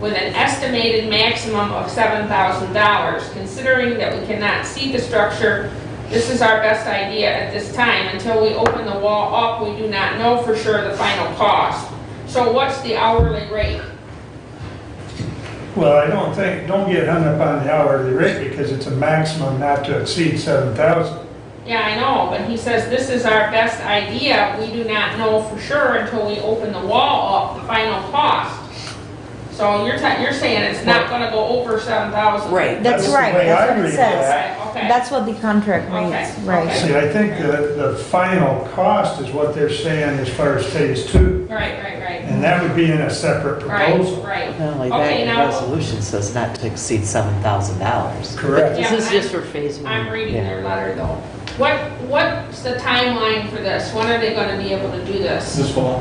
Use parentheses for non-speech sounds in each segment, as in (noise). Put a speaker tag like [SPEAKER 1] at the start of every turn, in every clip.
[SPEAKER 1] with an estimated maximum of $7,000. Considering that we cannot see the structure, this is our best idea at this time. Until we open the wall up, we do not know for sure the final cost. So what's the hourly rate?
[SPEAKER 2] Well, I don't think, don't get hung up on the hourly rate because it's a maximum not to exceed seven thousand.
[SPEAKER 1] Yeah, I know, but he says this is our best idea. We do not know for sure until we open the wall up, the final cost. So you're, ta- you're saying it's not gonna go over seven thousand?
[SPEAKER 3] Right.
[SPEAKER 2] That's
[SPEAKER 4] That's
[SPEAKER 2] the
[SPEAKER 4] right,
[SPEAKER 2] way I
[SPEAKER 4] that's what
[SPEAKER 2] read
[SPEAKER 4] it says.
[SPEAKER 1] Okay, okay.
[SPEAKER 4] That's what the contract reads,
[SPEAKER 1] Okay,
[SPEAKER 4] right.
[SPEAKER 1] okay.
[SPEAKER 2] See, I think that the final cost is what they're saying as far as phase two,
[SPEAKER 1] Right, right, right.
[SPEAKER 2] and that would be in a separate
[SPEAKER 1] Right,
[SPEAKER 2] proposal.
[SPEAKER 1] right.
[SPEAKER 3] Not only
[SPEAKER 1] Okay,
[SPEAKER 3] that,
[SPEAKER 1] now-
[SPEAKER 3] the resolution says not to exceed $7,000.
[SPEAKER 2] Correct.
[SPEAKER 1] Yeah,
[SPEAKER 5] This is
[SPEAKER 1] I'm-
[SPEAKER 5] just for phase
[SPEAKER 1] I'm
[SPEAKER 5] one.
[SPEAKER 1] reading their letter though. Mm. What, what's the timeline for this? When are they gonna be able to do this?
[SPEAKER 2] fall.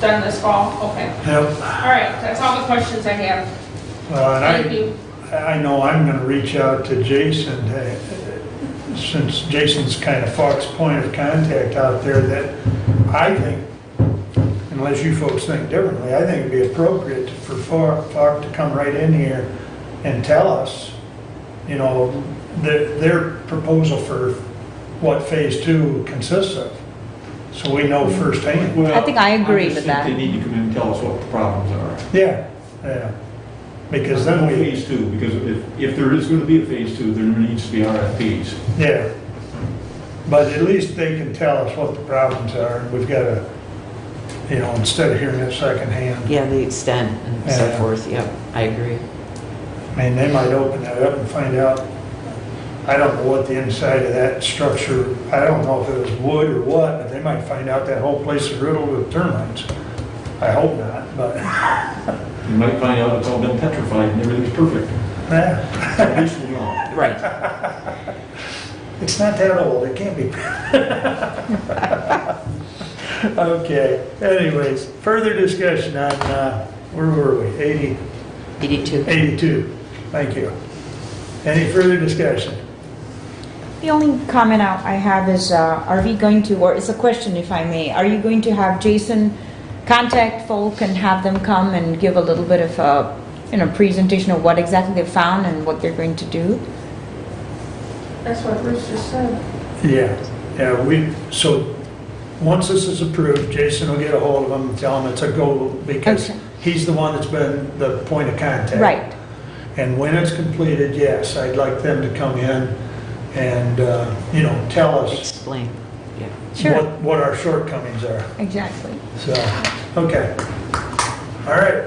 [SPEAKER 1] Done this fall? Okay. All
[SPEAKER 2] Yep.
[SPEAKER 1] right, that's all the questions I have.
[SPEAKER 2] Well, and I,
[SPEAKER 1] Thank you.
[SPEAKER 2] I know I'm gonna reach out to Jason, to- since Jason's kind of Fox point of contact out there, that I think, unless you folks think differently, I think it'd be appropriate for Fo- Fox to come right in here and tell us, you know, their, their proposal for what phase two consists of, so we know firsthand.
[SPEAKER 6] Well,
[SPEAKER 4] I think I agree
[SPEAKER 6] just
[SPEAKER 4] with
[SPEAKER 6] think
[SPEAKER 4] that.
[SPEAKER 6] They need to come in and tell us what the problems are.
[SPEAKER 2] Yeah, yeah, because then
[SPEAKER 6] No
[SPEAKER 2] we,
[SPEAKER 6] Phase two, because if, if there is gonna be a phase two, there needs to be RFPs.
[SPEAKER 2] yeah. But at least they can tell us what the problems are, and we've got to, you know, instead of hearing it secondhand.
[SPEAKER 3] Yeah, the extent and so
[SPEAKER 2] Yeah.
[SPEAKER 3] forth, yep, I agree.
[SPEAKER 2] I mean, they might open that up and find out, I don't know what the inside of that structure, I don't know if it was wood or what, but they might find out that whole place is riddled with termites. I hope not, but, (laughs)
[SPEAKER 6] You might find out it's all been petrified and everything's perfect.
[SPEAKER 2] eh,
[SPEAKER 6] At least we know.
[SPEAKER 3] Right.
[SPEAKER 2] it's not that old, it can't be. (laughs) Okay, anyways, further discussion on, uh, where were we, 80?
[SPEAKER 3] 82.
[SPEAKER 2] 82, thank you. Any further discussion?
[SPEAKER 4] The only comment I I have is, uh, are we going to, or it's a question if I may, are you going to have Jason contact folk and have them come and give a little bit of a, you know, presentation of what exactly they found and what they're going to do?
[SPEAKER 1] That's what Bruce just said.
[SPEAKER 2] Yeah, yeah, we, so, once this is approved, Jason will get a hold of them and tell them it's a go, because
[SPEAKER 4] Okay.
[SPEAKER 2] he's the one that's been the point of contact.
[SPEAKER 4] Right,
[SPEAKER 2] And when it's completed, yes, I'd like them to come in and, uh, you know, tell us
[SPEAKER 3] Explain, yeah.
[SPEAKER 4] sure,
[SPEAKER 2] what, what our shortcomings are,
[SPEAKER 4] exactly.
[SPEAKER 2] so, okay. All right,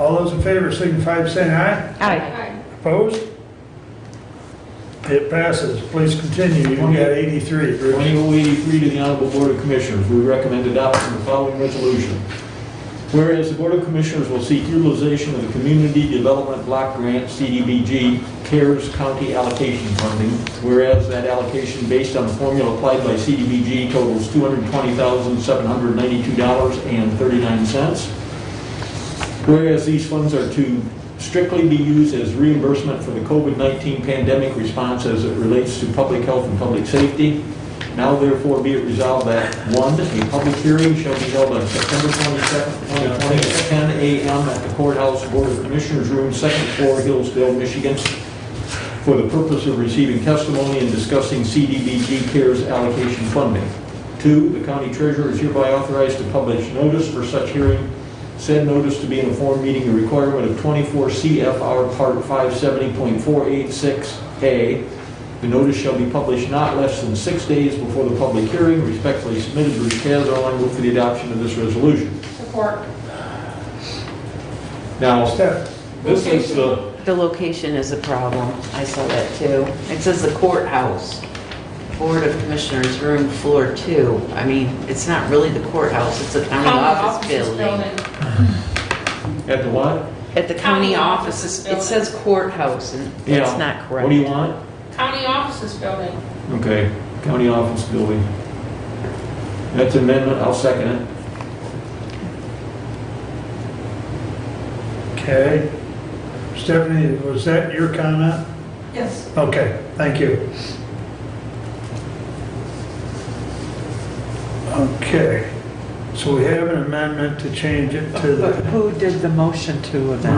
[SPEAKER 2] all those in favor signify by saying aye.
[SPEAKER 4] All right,
[SPEAKER 1] Hi.
[SPEAKER 2] Opposed? It passes. Please continue. You got 83, Bruce.
[SPEAKER 6] 2083 to the Honorable Board of Commissioners, we recommend adoption of the following resolution. Whereas the Board of Commissioners will seek utilization of the Community Development Block Grant, CDBG, CARES County Allocation Funding, whereas that allocation based on the formula applied by CDBG totals $220,792.39. Whereas these funds are to strictly be used as reimbursement for the COVID-19 pandemic response as it relates to public health and public safety. Now therefore be it resolved that, one, a public hearing shall be held on September 22nd, 2020, at 10 a.m. at the Courthouse Board of Commissioners Room, second floor, Hillsdale, Michigan, for the purpose of receiving testimony and discussing CDBG CARES allocation funding. Two, the county treasurer is hereby authorized to publish notice for such hearing. Said notice to be in a form meeting the requirement of 24 CFR Part 570.486A. The notice shall be published not less than six days before the public hearing. Respectfully submitted, Bruce Cazarelli, move for the adoption of this resolution.
[SPEAKER 1] Support.
[SPEAKER 6] Now,
[SPEAKER 2] Step.
[SPEAKER 6] this is the,
[SPEAKER 3] The location is a problem, I saw that too. It says the courthouse, Board of Commissioners, room floor two. I mean, it's not really the courthouse, it's a county
[SPEAKER 1] County
[SPEAKER 3] office
[SPEAKER 1] offices
[SPEAKER 3] building.
[SPEAKER 6] at the what?
[SPEAKER 3] At the
[SPEAKER 1] County
[SPEAKER 3] county
[SPEAKER 1] offices
[SPEAKER 3] offices, it says courthouse, and
[SPEAKER 6] Yeah.
[SPEAKER 3] that's not correct.
[SPEAKER 6] What do you want?
[SPEAKER 1] County offices building.
[SPEAKER 6] Okay, county office building. That's amendment, I'll second it.
[SPEAKER 2] Okay. Stephanie, was that your comment?
[SPEAKER 1] Yes.
[SPEAKER 2] Okay, thank you. Okay, so we have an amendment to change it to the...
[SPEAKER 7] But who did the motion to then?